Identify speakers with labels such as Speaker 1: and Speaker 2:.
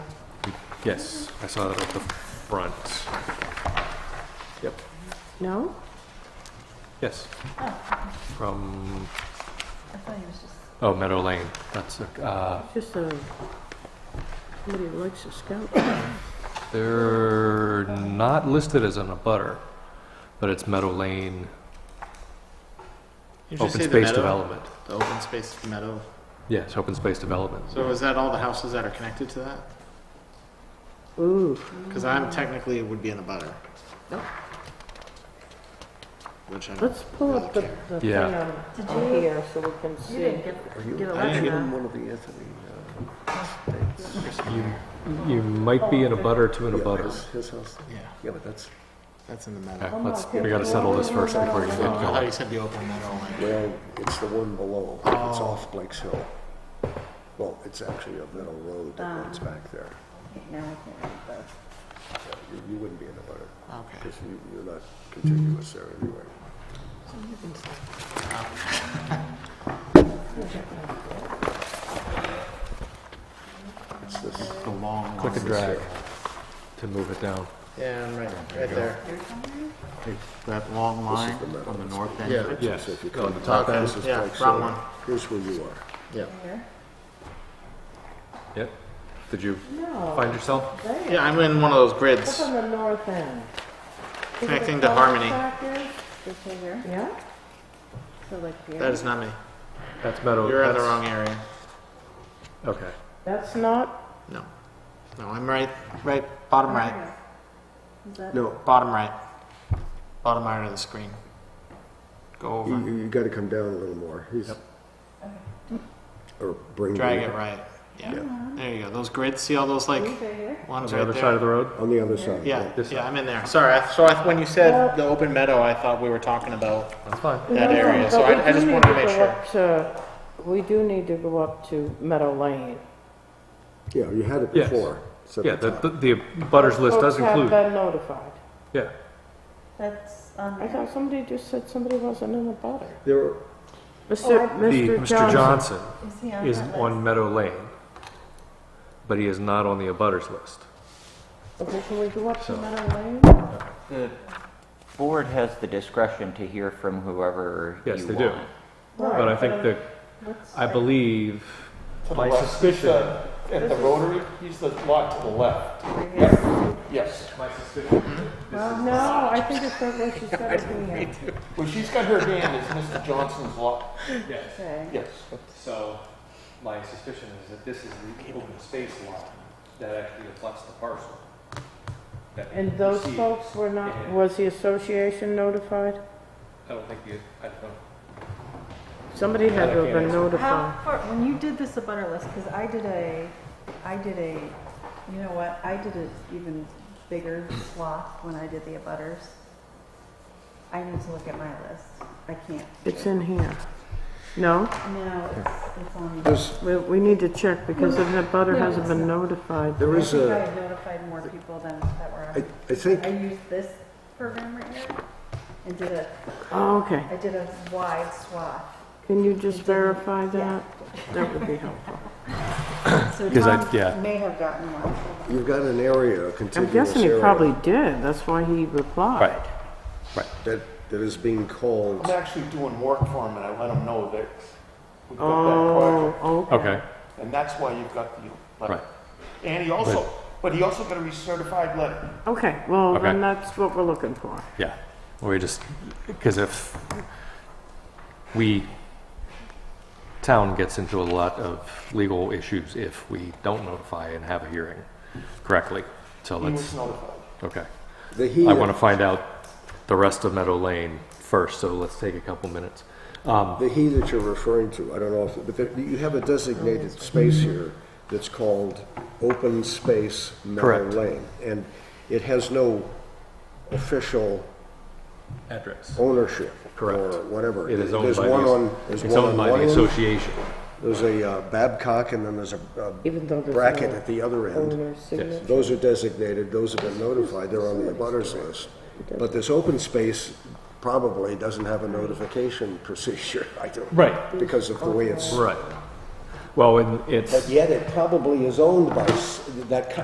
Speaker 1: Yes, I saw that at the front. Yep,
Speaker 2: No?
Speaker 1: yes. From,
Speaker 3: I thought he was just.
Speaker 1: oh, Meadow Lane, that's, uh,
Speaker 2: Just a, somebody who likes to scout.
Speaker 1: they're not listed as an abutter, but it's Meadow Lane
Speaker 4: You should
Speaker 1: Open
Speaker 4: say the
Speaker 1: Space
Speaker 4: meadow,
Speaker 1: Development.
Speaker 4: The open space meadow.
Speaker 1: Yes, Open Space Development.
Speaker 4: So is that all the houses that are connected to that?
Speaker 2: Ooh,
Speaker 4: Because I'm technically it would be in a butter.
Speaker 2: Nope.
Speaker 4: Which I don't
Speaker 2: let's pull up the,
Speaker 4: really care.
Speaker 2: the thing
Speaker 1: Yeah.
Speaker 2: on
Speaker 3: Did
Speaker 2: on
Speaker 3: you-
Speaker 2: here so we can
Speaker 3: You
Speaker 2: see.
Speaker 3: didn't get,
Speaker 5: Are you,
Speaker 3: get a
Speaker 4: I didn't
Speaker 3: letter.
Speaker 4: get
Speaker 5: I'm one of the Anthony uh, states.
Speaker 1: You, you might be in a butter to an
Speaker 5: Yeah,
Speaker 1: abutter.
Speaker 5: his- His house,
Speaker 4: Yeah,
Speaker 5: yeah, but that's,
Speaker 4: that's in the meadow.
Speaker 1: Okay, let's, we gotta settle this first before you get
Speaker 4: Oh, I thought
Speaker 1: going.
Speaker 4: you said the open meadow. Like,
Speaker 5: well, it's the one below, it's
Speaker 4: Oh.
Speaker 5: off Blake's Hill. Well, it's actually a metal road that runs back there.
Speaker 3: No, Ah. I can't read both.
Speaker 5: Yeah, You, you wouldn't be in a butter,
Speaker 4: okay.
Speaker 5: because you, you're not contiguous there anyway. It's this,
Speaker 4: The long.
Speaker 1: Click and
Speaker 4: one.
Speaker 1: drag to move it down.
Speaker 4: Yeah, I'm right, right there. That long line on the north end.
Speaker 5: yeah.
Speaker 1: Yes.
Speaker 5: so if you
Speaker 1: Oh,
Speaker 5: come
Speaker 1: the top
Speaker 5: back,
Speaker 1: end?
Speaker 5: this is
Speaker 4: Yeah,
Speaker 5: Blake's
Speaker 4: front
Speaker 5: Hill.
Speaker 4: one.
Speaker 5: Here's where you are.
Speaker 4: Yeah.
Speaker 3: Here?
Speaker 1: Yep. Did you
Speaker 2: No,
Speaker 1: find yourself?
Speaker 2: there,
Speaker 4: Yeah, I'm in one of those
Speaker 2: up
Speaker 4: grids.
Speaker 2: on the north end. Is it a
Speaker 4: Connecting to
Speaker 2: cul-de-sac
Speaker 4: Harmony.
Speaker 2: there?
Speaker 3: This way here?
Speaker 2: Yeah?
Speaker 3: So like here?
Speaker 4: That is not me.
Speaker 1: That's Meadow.
Speaker 4: You're in the
Speaker 1: that's-
Speaker 4: wrong area.
Speaker 1: Okay.
Speaker 2: That's not,
Speaker 4: No. No, I'm right, right, bottom right,
Speaker 3: Is that?
Speaker 5: No,
Speaker 4: bottom right. Bottom right of the screen. Go
Speaker 5: You,
Speaker 4: over.
Speaker 5: you gotta come down a little more. He's. Or bring.
Speaker 4: Drag
Speaker 5: the-
Speaker 4: it right. Yeah. There you go. Those grids, see all those like
Speaker 3: Right here?
Speaker 1: On
Speaker 4: ones
Speaker 1: the
Speaker 4: right
Speaker 1: other side of
Speaker 4: there?
Speaker 1: the road?
Speaker 5: On the other side.
Speaker 4: Yeah,
Speaker 1: This
Speaker 4: yeah,
Speaker 1: side.
Speaker 4: I'm in there. Sorry, I- so I- when you said the open meadow, I thought we were talking about
Speaker 1: That's fine.
Speaker 4: that
Speaker 2: No,
Speaker 4: area, so
Speaker 2: but we
Speaker 4: I I
Speaker 2: do
Speaker 4: just
Speaker 2: need
Speaker 4: wanted to
Speaker 2: go
Speaker 4: make sure.
Speaker 2: up to- We do need to go up to Meadow Lane.
Speaker 5: Yeah, you had it
Speaker 1: Yes.
Speaker 5: before. It's at
Speaker 1: Yeah,
Speaker 5: the
Speaker 1: the,
Speaker 5: top.
Speaker 1: the, the butters list does
Speaker 2: Folks have
Speaker 1: include,
Speaker 2: been notified.
Speaker 1: yeah.
Speaker 3: That's on
Speaker 2: I
Speaker 3: there.
Speaker 2: thought somebody just said somebody wasn't in the butter.
Speaker 5: There, were-
Speaker 2: Mr.
Speaker 1: The, Mr. Johnson
Speaker 3: Is he on
Speaker 1: is
Speaker 3: that
Speaker 1: on
Speaker 3: list?
Speaker 1: Meadow Lane, but he is not on the abutters list.
Speaker 2: Okay, can we go up to
Speaker 1: So-
Speaker 2: Meadow Lane?
Speaker 6: The board has the discretion to hear from whoever you want.
Speaker 1: Yes, they do. But I think that,
Speaker 2: What's-
Speaker 1: I believe, my suspicion,
Speaker 7: At the rotary, he's the lot to the left. Yes.
Speaker 2: Well,
Speaker 8: Mm-hmm.
Speaker 2: no, I think it's not what she said at the end.
Speaker 7: Well, she's got her hand as Mr. Johnson's lot.
Speaker 3: Okay.
Speaker 7: Yes.
Speaker 8: So, my suspicion is that this is the open space lot that actually reflects the parcel. that
Speaker 2: And
Speaker 8: you
Speaker 2: those
Speaker 8: see.
Speaker 2: folks were not, was the association notified?
Speaker 8: I don't think you, I don't know.
Speaker 2: Somebody had to have been
Speaker 3: How
Speaker 2: notified.
Speaker 3: far, when you did this a butter list, because I did a, I did a, you know what, I did an even bigger swath when I did the abutters. I need to look at my list. I can't.
Speaker 2: It's in here. No,
Speaker 3: No, it's, it's on.
Speaker 5: there's,
Speaker 2: we, we need to check because if the butter hasn't been notified.
Speaker 5: there
Speaker 3: I
Speaker 5: is
Speaker 3: think I
Speaker 5: a,
Speaker 3: had notified more people than that were
Speaker 5: I,
Speaker 3: on.
Speaker 5: I think,
Speaker 3: I used this program right here and did a,
Speaker 2: Oh, okay.
Speaker 3: I did a wide swath.
Speaker 2: Can you just verify that? That would be helpful.
Speaker 3: So
Speaker 1: Because I-
Speaker 3: Tom
Speaker 1: yeah.
Speaker 3: may have gotten one.
Speaker 5: you've got an area, a
Speaker 2: I'm
Speaker 5: contiguous
Speaker 2: guessing he
Speaker 5: area
Speaker 2: probably did. That's why he replied.
Speaker 5: that, that is being called,
Speaker 7: I'm actually doing work for him and I let him know that we've got that project.
Speaker 2: Oh, okay.
Speaker 1: okay,
Speaker 7: And that's why you've got the letter.
Speaker 1: right.
Speaker 7: And he also, but he also got a recertified letter.
Speaker 2: Okay, well,
Speaker 1: Okay.
Speaker 2: then that's what we're looking for.
Speaker 1: Yeah, we just, because if we, town gets into a lot of legal issues if we don't notify and have a hearing correctly. So
Speaker 7: He was
Speaker 1: let's,
Speaker 7: notified.
Speaker 1: okay.
Speaker 5: the he,
Speaker 1: I want to
Speaker 5: the
Speaker 1: find out the rest of Meadow Lane first, so let's take a couple minutes. Um,
Speaker 5: he that you're referring to, I don't know if, but there- you have a designated space here that's called open space meadow
Speaker 1: Correct.
Speaker 5: lane. And it has no official
Speaker 1: Address.
Speaker 5: ownership.
Speaker 1: Correct.
Speaker 5: Or whatever.
Speaker 1: It is owned
Speaker 5: There's
Speaker 1: by
Speaker 5: one
Speaker 1: the,
Speaker 5: on- there's
Speaker 1: it's
Speaker 5: one
Speaker 1: owned
Speaker 5: on
Speaker 1: by
Speaker 5: one
Speaker 1: the
Speaker 5: end.
Speaker 1: association.
Speaker 5: There's a uh, Babcock and then there's a a
Speaker 2: Even though there's
Speaker 5: bracket
Speaker 2: no
Speaker 5: at the other end.
Speaker 2: owner's signature.
Speaker 5: Those are designated, those have been notified, they're on the abutters list. But this open space probably doesn't have a notification procedure, I don't.
Speaker 1: Right.
Speaker 5: Because of the way it's,
Speaker 1: Right. Well, and it's.
Speaker 5: but yet it probably is owned by, s- that